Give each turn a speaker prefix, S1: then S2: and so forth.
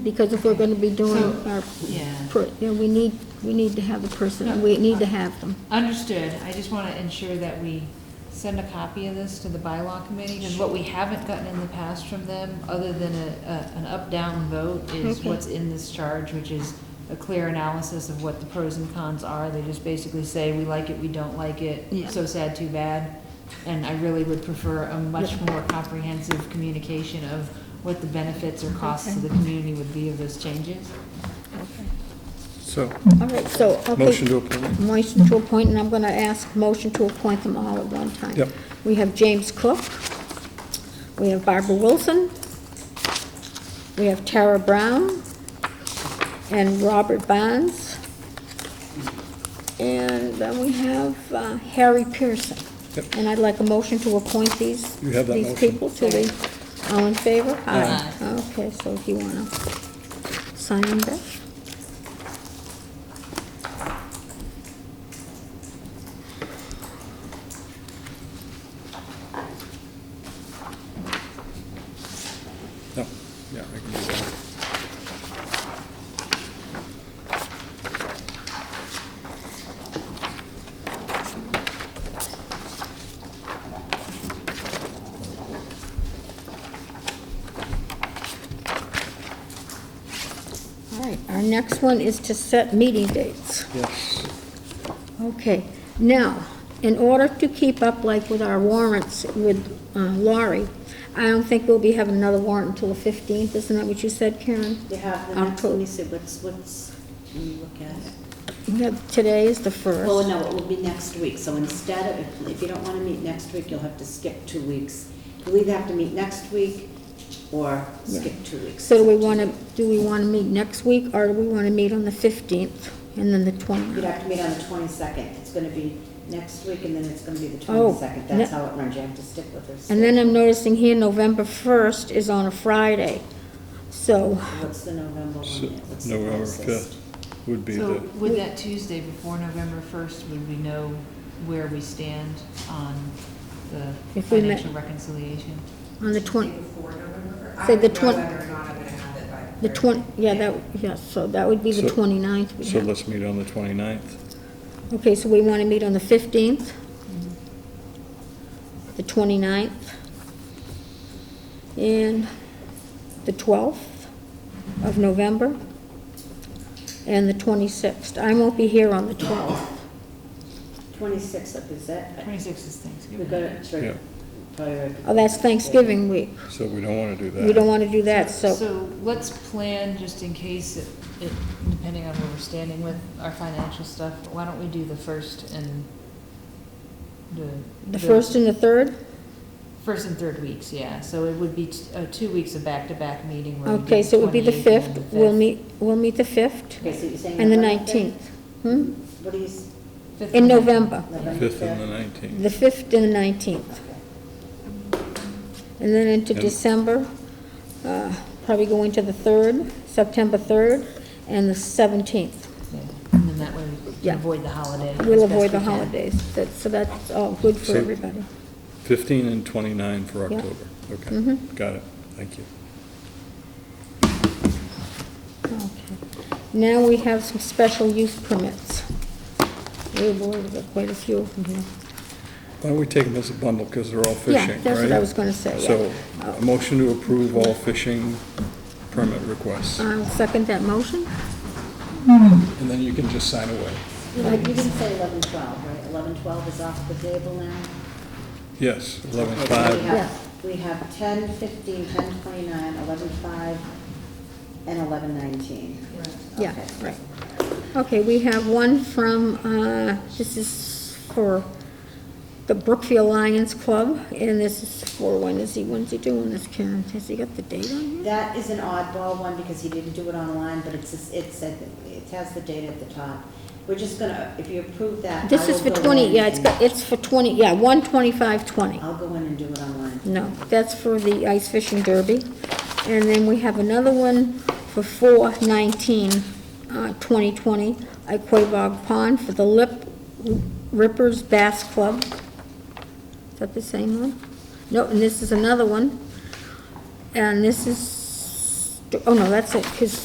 S1: Because if we're gonna be doing
S2: So-
S1: our,
S2: Yeah.
S1: pro- you know, we need, we need to have the person, we need to have them.
S2: Understood. I just want to ensure that we send a copy of this to the bylaw committee, because what we haven't gotten in the past from them, other than a, a- an up-down vote, is
S1: Okay.
S2: what's in this charge, which is a clear analysis of what the pros and cons are. They just basically say, we like it, we don't like
S1: Yeah.
S2: it, so sad, too bad. And I really would prefer a much more comprehensive communication of what the benefits or costs to the community would be of those changes.
S3: So,
S1: All right, so, okay.
S3: motion to appoint.
S1: Motion to appoint, and I'm gonna ask motion to appoint them all at one time.
S3: Yep.
S1: We have James Cook. We have Barbara Wilson. We have Tara Brown. And Robert Bonds. And then we have uh, Harry Pearson.
S3: Yep.
S1: And I'd like a motion to appoint these,
S3: You have that
S1: these
S3: motion.
S1: people to the, all in favor?
S2: Aye.
S1: Okay, so if you wanna sign them, Beth?
S3: No, yeah, I can do that.
S1: All right, our next one is to set meeting dates.
S3: Yes.
S1: Okay, now, in order to keep up like with our warrants with uh, Laurie, I don't think we'll be having another warrant until the 15th, isn't that what you said, Karen?
S4: You have the
S1: Um,
S4: next, let me see, what's, what's, let me look at it.
S1: We have- Today is the
S4: Well,
S1: 1st.
S4: no, it will be next week, so instead of, if you don't want to meet next week, you'll have to skip two weeks. You'll either have to meet next week or skip two weeks.
S1: So do we want to, do we want to meet next week, or do we want to meet on the 15th and then the 20th?
S4: You'd have to meet on the twenty-second, it's gonna be next week, and then it's gonna be the
S1: Oh,
S4: twenty-second, that's
S1: ne-
S4: how it runs, you have to stick with this.
S1: And then I'm noticing here, November 1st is on a Friday, so,
S4: What's the November
S3: So,
S4: one, what's the
S3: November
S4: closest?
S3: 5th would be
S2: So
S3: the,
S2: would that Tuesday before November 1st, would we know where we stand on the
S1: If we met-
S2: financial reconciliation?
S1: on the 20th.
S5: Before November, I
S1: Say
S5: don't
S1: the
S5: know
S1: twen-
S5: whether or not I'm gonna have it by.
S1: The 20, yeah, that, yeah, so that would be the
S3: So-
S1: 29th. we
S3: so
S1: have.
S3: let's meet on the 29th.
S1: Okay, so we want to meet on the 15th, the 29th, and the 12th of November, and the 26th. I won't be here on the 12th.
S4: Twenty-sixth, is that,
S2: 26th is
S4: we got
S2: Thanksgiving.
S4: it, for-
S3: Yeah.
S4: probably right.
S1: Oh, that's Thanksgiving week.
S3: So we don't want to do that.
S1: We don't want to do that, so,
S2: So let's plan, just in case, it- it- depending on where we're standing with our financial stuff, why don't we do the first and the.
S1: the 1st and the 3rd?
S2: First and third weeks, yeah. So it would be t- uh, two weeks of back-to-back meeting where we do
S1: Okay, so it would be the
S2: 28th and
S1: 5th. We'll
S2: 5th.
S1: meet, we'll meet the 5th
S4: Okay, so you're saying.
S1: and the
S4: November 5th?
S1: 19th. Hmm?
S4: What do you, s-
S2: Fifth
S1: In
S2: and
S1: November,
S4: November
S3: 5th and the
S4: fifth?
S3: 19th.
S1: the 5th and the 19th.
S4: Okay.
S1: And then into
S3: And-
S1: December, uh, probably go into the 3rd, September 3rd, and the 17th.
S2: Yeah, And then that way we
S1: Yeah.
S2: can avoid the holiday.
S1: We'll
S2: as best
S1: avoid the
S2: we can.
S1: holidays, That- so that's all good for
S3: So-
S1: everybody.
S3: 15 and 29 for
S1: Yeah.
S3: October. Okay,
S1: Mhm.
S3: got it. Thank you.
S1: Okay. Now we have some special use permits. Oh, We've ordered quite a few of them here.
S3: Why don't we take them as a bundle, because they're all fishing,
S1: Yeah,
S3: right?
S1: that's what I was gonna say, yeah.
S3: So, a motion to approve all fishing permit requests,
S1: I'll second that motion.
S3: and then you can just sign away.
S4: You didn't say eleven twelve, right? Eleven twelve is off the table now?
S3: Yes, eleven
S4: Okay, so we
S3: five,
S4: have-
S1: Yeah.
S4: We have ten fifteen, ten twenty-nine, eleven five, and eleven nineteen.
S1: Yeah,
S4: Okay.
S1: right. Okay, we have one from, uh, this is for the Brookfield Lions Club, and this is for, when is he, when's he doing this, Karen? Has he got the date on here?
S4: That is an oddball one because he didn't do it online, but it's, just- it said, it has the date at the top. We're just gonna, if you approve that. I
S1: This is for
S4: will go
S1: 20,
S4: in
S1: yeah, it's
S4: and-
S1: got, it's for 20, yeah, 12520.
S4: I'll go in and do it online.
S1: No, that's for the ice fishing derby. And then we have another one for 419, uh 2020 at Quabog Pond for the Lip Rippers Bass Club. Is that the same one? No, and this is another one. And this is oh no, that's it, because